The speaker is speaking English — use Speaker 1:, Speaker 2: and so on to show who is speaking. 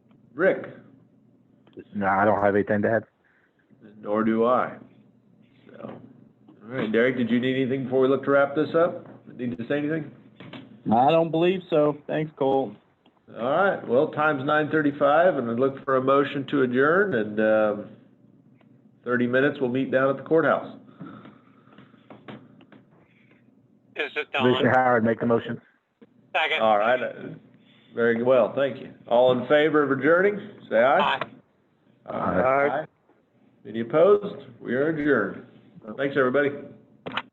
Speaker 1: Rick?
Speaker 2: No, I don't have anything to add.
Speaker 1: Nor do I. So, all right, Derek, did you need anything before we look to wrap this up? Need to say anything?
Speaker 3: I don't believe so. Thanks, Cole.
Speaker 1: All right, well, time's nine thirty-five, and I look for a motion to adjourn, and, um, thirty minutes, we'll meet down at the courthouse.
Speaker 4: This is
Speaker 2: Commissioner
Speaker 4: Don.
Speaker 2: Howard, make the motion.
Speaker 4: Second.
Speaker 1: All right, uh, very well, thank you. All in favor of adjourning, say aye.
Speaker 4: Aye.
Speaker 2: Aye.
Speaker 1: Any opposed? We are adjourned. Thanks, everybody.